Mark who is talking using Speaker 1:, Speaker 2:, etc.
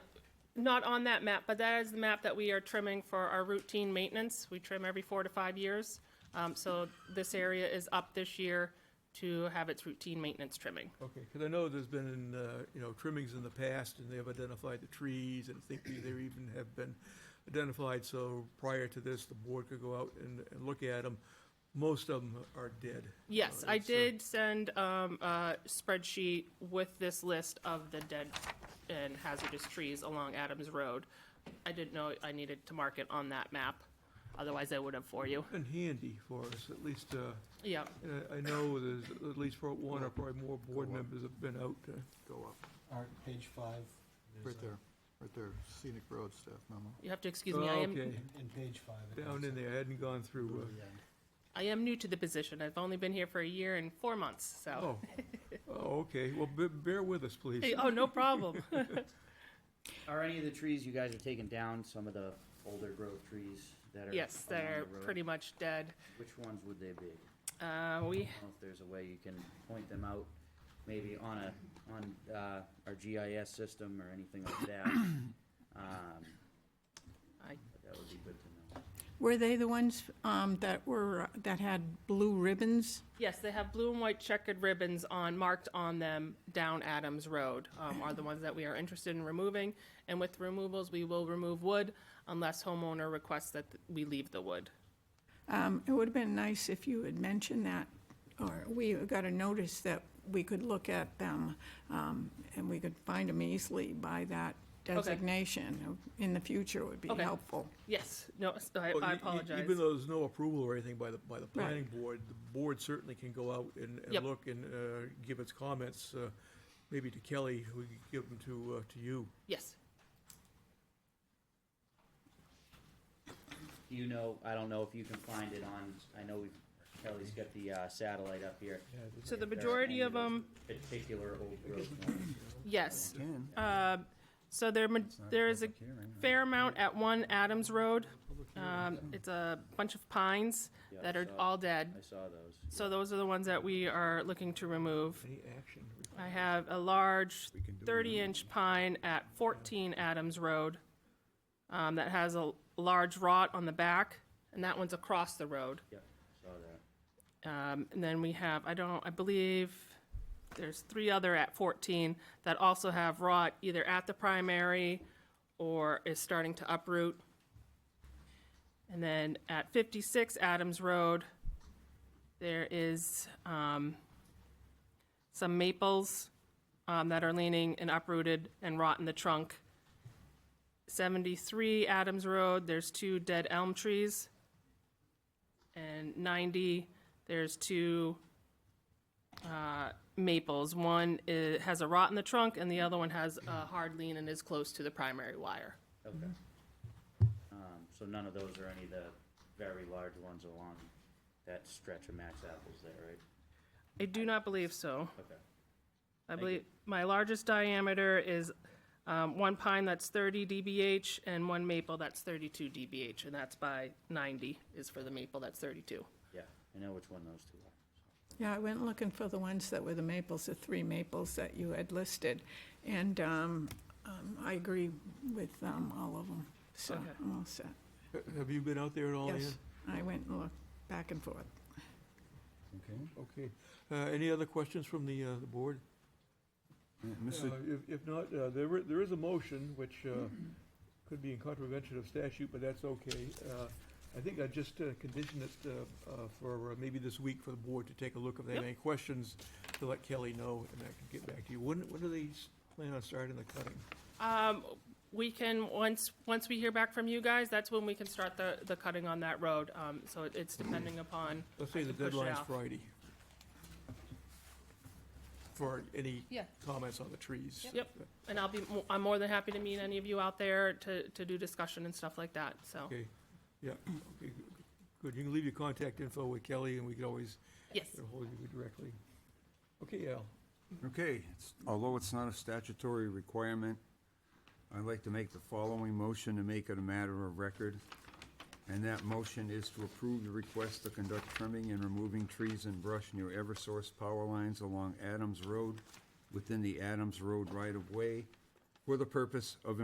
Speaker 1: not on that map, but that is the map that we are trimming for our routine maintenance. We trim every four to five years. Um, so this area is up this year to have its routine maintenance trimming.
Speaker 2: Okay, because I know there's been, uh, you know, trimmings in the past, and they have identified the trees, and I think they they even have been identified, so prior to this, the board could go out and, and look at them. Most of them are dead.
Speaker 1: Yes,
Speaker 2: Uh,
Speaker 1: I
Speaker 2: it's, uh,
Speaker 1: did send, um, a spreadsheet with this list of the dead and hazardous trees along Adams Road. I didn't know I needed to mark it on that map, otherwise I would have for you.
Speaker 2: Been handy for us, at least, uh,
Speaker 1: Yeah,
Speaker 2: and I, I know there's at least for one or probably more board members have been out. uh,
Speaker 3: Go up,
Speaker 4: Art, page five. there's
Speaker 3: right
Speaker 4: a-
Speaker 3: there, right there, scenic road staff memo.
Speaker 1: you have to excuse me, I am,
Speaker 2: Oh, Okay,
Speaker 4: In, in page five. it
Speaker 2: down
Speaker 4: has
Speaker 2: in
Speaker 4: a- oh,
Speaker 2: there, I hadn't gone through, uh,
Speaker 4: Yeah.
Speaker 1: I am new to the position. I've only been here for a year and four months, so.
Speaker 2: oh, oh, okay, well, be- bear with us, please.
Speaker 1: Hey, oh, no problem.
Speaker 5: Are any of the trees you guys have taken down, some of the older growth trees that are?
Speaker 1: yes, they're
Speaker 5: along the road?
Speaker 1: pretty much dead.
Speaker 5: Which ones would they be?
Speaker 1: Uh, we
Speaker 5: I don't know if there's a way you can point them out, maybe on a, on, uh, our GIS system or anything like that. Um,
Speaker 1: I-
Speaker 5: That would be good to know.
Speaker 6: Were they the ones um, that were, that had blue ribbons?
Speaker 1: yes, they have blue and white checkered ribbons on marked on them down Adams Road um, are the ones that we are interested in removing. And with removals, we will remove wood unless homeowner requests that th- we leave the wood.
Speaker 6: Um, It would have been nice if you had mentioned that, or we got a notice that we could look at them, um, and we could find them easily by that designation. In the future would be
Speaker 1: Okay.
Speaker 6: helpful.
Speaker 1: Yes, no, s-
Speaker 5: Oh,
Speaker 1: I,
Speaker 2: Well,
Speaker 1: I
Speaker 2: e- e-
Speaker 1: apologize.
Speaker 2: Even though there's no approval or anything by the, by the planning board, the board certainly can go out and,
Speaker 1: Yep.
Speaker 2: and look and, uh, give its comments, uh, maybe to Kelly, who can give them to, uh, to you.
Speaker 1: yes,
Speaker 5: Do you know, I don't know if you can find it on, I know we've, Kelly's got the, uh, satellite up here.
Speaker 1: so the
Speaker 5: If there are
Speaker 1: majority
Speaker 5: any
Speaker 1: of
Speaker 5: those
Speaker 1: them,
Speaker 5: Particular old growth ones.
Speaker 1: yes.
Speaker 4: Again,
Speaker 1: Um, So there, ma- there is a fair amount at one Adams Road. Um, It's a bunch of pines
Speaker 5: Yeah,
Speaker 1: that
Speaker 5: I
Speaker 1: are
Speaker 5: saw-
Speaker 1: all dead.
Speaker 5: I saw those.
Speaker 1: So those are the ones that we are looking to remove.
Speaker 2: Any action?
Speaker 1: I have a large thirty-inch pine at fourteen Adams Road um, that has a large rot on the back, and that one's across the road.
Speaker 5: Yep, saw that.
Speaker 1: Um, and then we have, I don't, I believe there's three other at 14 that also have rot either at the primary or is starting to uproot. And then at 56 Adams Road, there is um, some maples um, that are leaning and uprooted and rot in the trunk. 73 Adams Road, there's two dead elm trees and 90, there's two uh, maples. One i has a rot in the trunk, and the other one has a hard lean and is close to the primary wire.
Speaker 5: Okay. Um, so none of those are any of the very large ones along that stretch of Max Apples there, right?
Speaker 1: I do not believe so.
Speaker 5: Okay.
Speaker 1: I
Speaker 5: you.
Speaker 1: believe my largest diameter is um, one pine that's 30 dBH and one maple that's 32 dBH, and that's by 90 is for the maple that's 32.
Speaker 5: Yeah, I know which one those two are.
Speaker 6: Yeah, I went looking for the ones that were the maples, the three maples that you had listed, and um, um, I agree with um, all of them, so
Speaker 1: Okay.
Speaker 6: I'm all set.
Speaker 2: Ha- Have you been out there at all, Ann?
Speaker 6: Yes, I went and looked back and forth.
Speaker 4: Okay.
Speaker 2: Okay, uh, any other questions from the, uh, the board?
Speaker 4: Yeah,
Speaker 2: Uh,
Speaker 4: Mr.
Speaker 2: If, if not, uh, there, i- there is a motion which uh, could be in contravention of statute, but that's okay. Uh, I think I just uh, condition it uh, uh, for uh, maybe this week for the board to take a look if they have
Speaker 1: Yep.
Speaker 2: any questions, to let Kelly know, and I can get back to you. When, when do they s- plan on starting the cutting?
Speaker 1: Um, we can, once, once we hear back from you guys, that's when we can start the, the cutting on that road. Um, so it- it's depending upon,
Speaker 2: Let's say
Speaker 1: can
Speaker 2: the
Speaker 1: push it
Speaker 2: deadline's
Speaker 1: off.
Speaker 2: Friday. For any
Speaker 1: Yeah.
Speaker 2: comments on the trees.
Speaker 1: Yep. and I'll be, mo- I'm more than happy to meet any of you out there to, to do discussion and stuff like that, so.
Speaker 2: Okay, yeah, okay, good. You can leave your contact info with Kelly, and we can always
Speaker 1: Yes,
Speaker 2: They'll hold you directly. Okay, Al,
Speaker 7: Okay, it's- although it's not a statutory requirement, I'd like to make the following motion to make it a matter of record. And that motion is to approve the request to conduct trimming and removing trees and brush near Eversource power lines along Adams Road within the Adams Road right-of-way for the purpose of